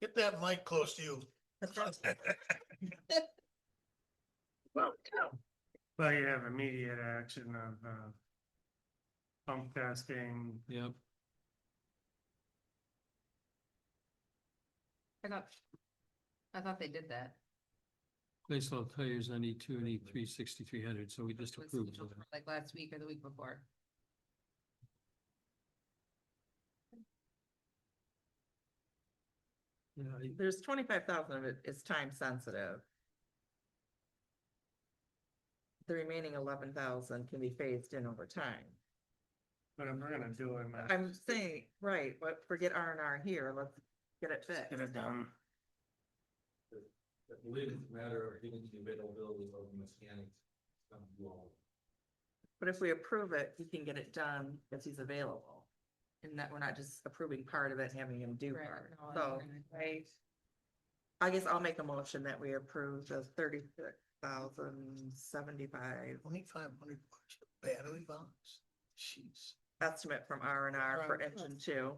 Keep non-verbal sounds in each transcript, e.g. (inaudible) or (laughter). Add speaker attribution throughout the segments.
Speaker 1: Get that mic close to you. (laughs)
Speaker 2: Well, you have immediate action of, uh. Pump testing,
Speaker 3: Yep.
Speaker 4: I thought, I thought they did that.
Speaker 3: Place level failures on E two and E three sixty-three hundred, so we just
Speaker 4: which was
Speaker 3: approved.
Speaker 4: scheduled for, Like last week or the week before.
Speaker 3: that.
Speaker 5: There's twenty-five thousand of it is time sensitive. The remaining eleven thousand can be phased in over time.
Speaker 2: but I'm gonna do it, man.
Speaker 5: I'm saying, right, but forget R and R here, let's get it
Speaker 2: Just Get
Speaker 5: fixed.
Speaker 2: it done.
Speaker 6: I believe it's a matter of getting the availability of mechanics. um, well,
Speaker 5: But if we approve it, he can get it done if he's available. And that we're not just approving part of it, and having him do
Speaker 4: Right,
Speaker 5: part.
Speaker 4: no, I
Speaker 5: So
Speaker 4: agree.
Speaker 5: I, I guess I'll make a motion that we approve the thirty-six thousand seventy-five
Speaker 1: Twenty-five hundred bucks for battery box? Jeez.
Speaker 5: estimate from R and R for
Speaker 1: Right.
Speaker 5: engine two.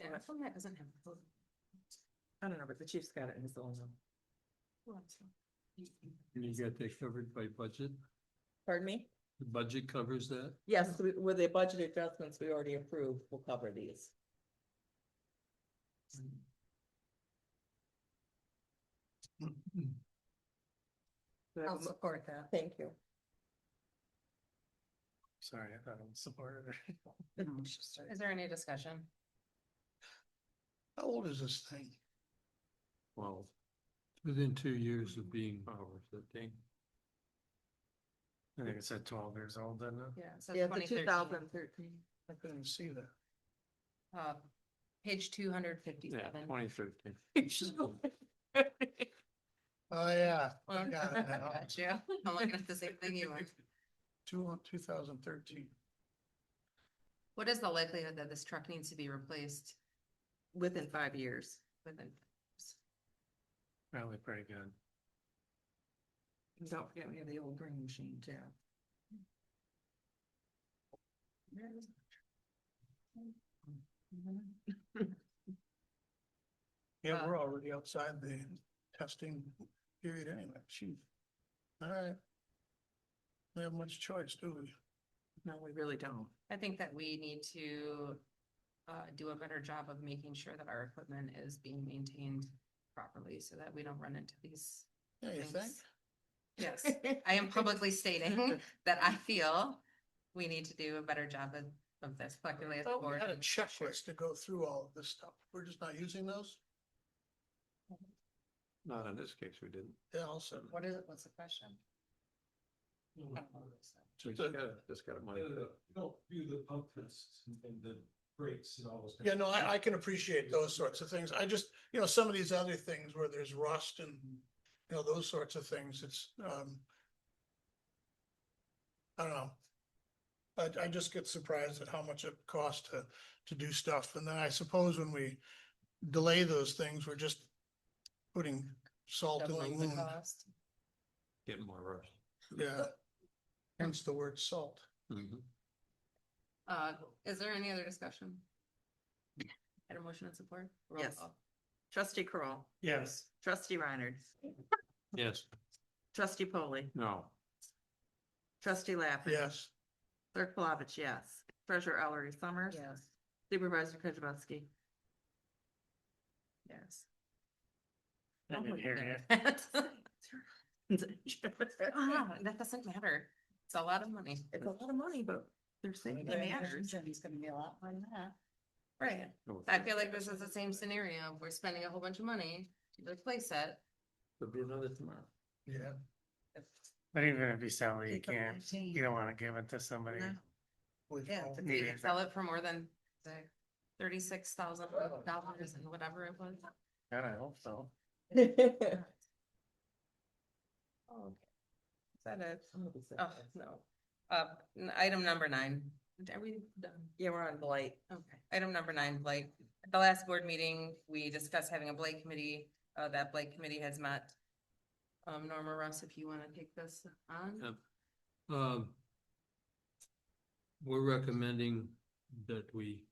Speaker 4: Yeah,
Speaker 5: Right.
Speaker 4: how come that doesn't have. both?
Speaker 5: I don't know, but the chief's got it in his own.
Speaker 4: Well, that's fine.
Speaker 3: And you got that covered by budget?
Speaker 5: Pardon me?
Speaker 3: The budget covers that?
Speaker 5: Yes, we- with the budget adjustments we already approved, we'll cover these. Do I have a
Speaker 4: I'll
Speaker 5: mo-
Speaker 4: support that.
Speaker 5: Thank you.
Speaker 2: Sorry, I thought I was supported.
Speaker 4: Is there any discussion?
Speaker 1: How old is this thing?
Speaker 3: Well. Within two years of being ours, I think.
Speaker 2: I think it said twelve years old, didn't it?
Speaker 4: Yeah. so
Speaker 5: Yeah, the
Speaker 4: 2013,
Speaker 5: two thousand thirteen.
Speaker 1: I couldn't see that.
Speaker 4: uh, Page two hundred fifty-seven.
Speaker 3: twenty (laughs) fifteen.
Speaker 1: Oh, yeah. I got (laughs) it now.
Speaker 4: Got you. I'm looking at the same thing you are.
Speaker 1: Two, two thousand thirteen.
Speaker 4: What is the likelihood that this truck needs to be replaced
Speaker 5: (laughs) Within five years.
Speaker 4: within?
Speaker 2: Probably pretty good.
Speaker 5: And Don't forget, we have the old green machine too.
Speaker 1: Yeah,
Speaker 4: Uh,
Speaker 1: we're already outside the testing period anyway, Gee. All right. We have much choice, do we?
Speaker 5: No, we really (laughs) don't.
Speaker 4: I think that we need to uh, do a better job of making sure that our equipment is being maintained properly so that we don't run into these
Speaker 1: Yeah, you think?
Speaker 4: things.
Speaker 1: (laughs)
Speaker 4: Yes, I (laughs) am publicly stating (laughs) that I feel we need to do a better job of, of this collectively as a
Speaker 1: Thought we
Speaker 4: board.
Speaker 1: had a checklist to go through all of this stuff. We're just not using those?
Speaker 3: Not in this case, we didn't.
Speaker 1: Yeah, also.
Speaker 4: What is, it? what's the question?
Speaker 3: So we
Speaker 1: just
Speaker 3: got, just got a
Speaker 6: uh, you Don't do the pump tests and- and the brakes and all those.
Speaker 1: Yeah, no, I, I can appreciate those sorts of things. I just, you know, some of these other things where there's rust and, you know, those sorts of things, it's, um. I don't know. I, I just get surprised at how much it costs to, to do stuff. And then I suppose when we delay those things, we're just putting salt in the
Speaker 4: Doubling the
Speaker 1: wound.
Speaker 4: cost.
Speaker 3: Getting more rush.
Speaker 1: Yeah. Hence the word salt.
Speaker 3: Mm-hmm.
Speaker 4: Uh, is there any other discussion? Had a motion and support? Roll
Speaker 5: Yes.
Speaker 4: call.
Speaker 5: Trustee Crawl,
Speaker 2: Yes.
Speaker 5: trustee Reiner,
Speaker 3: Yes,
Speaker 5: trustee Polly,
Speaker 3: no.
Speaker 5: trustee Lappin.
Speaker 1: Yes.
Speaker 5: Clerk Palovich, yes. Treasurer Ellery Summers.
Speaker 4: Yes,
Speaker 5: Supervisor Kujabaski.
Speaker 4: yes. Oh
Speaker 2: I didn't hear you.
Speaker 4: (laughs) Ah, (laughs) That doesn't matter. It's a lot of money.
Speaker 5: It's a lot of money, but they're saying it matters.
Speaker 4: It's gonna be a lot more than that. Right. I feel like this is the same scenario. We're spending a whole bunch of money to replace it.
Speaker 3: There'll be another tomorrow.
Speaker 1: Yeah.
Speaker 2: But even if you sell it, you
Speaker 5: It's a
Speaker 2: can't, you don't wanna give it to somebody.
Speaker 5: No.
Speaker 1: we've
Speaker 4: Yeah,
Speaker 1: all-
Speaker 4: but they
Speaker 2: Yeah.
Speaker 4: can sell it for more than the thirty-six thousand dollars and whatever it was.
Speaker 2: God, I hope so.
Speaker 5: (laughs)
Speaker 4: Oh, okay.
Speaker 5: Is that it?
Speaker 4: Oh, no. Uh, n- item number nine. Are we done?
Speaker 5: Yeah, we're on blight.
Speaker 4: Okay, item number nine, Blake. At the last board meeting, we discussed having a Blake committee, uh, that Blake committee has met. Um, Norma Russ, if you wanna take this on,
Speaker 3: Yep. Um, We're recommending that we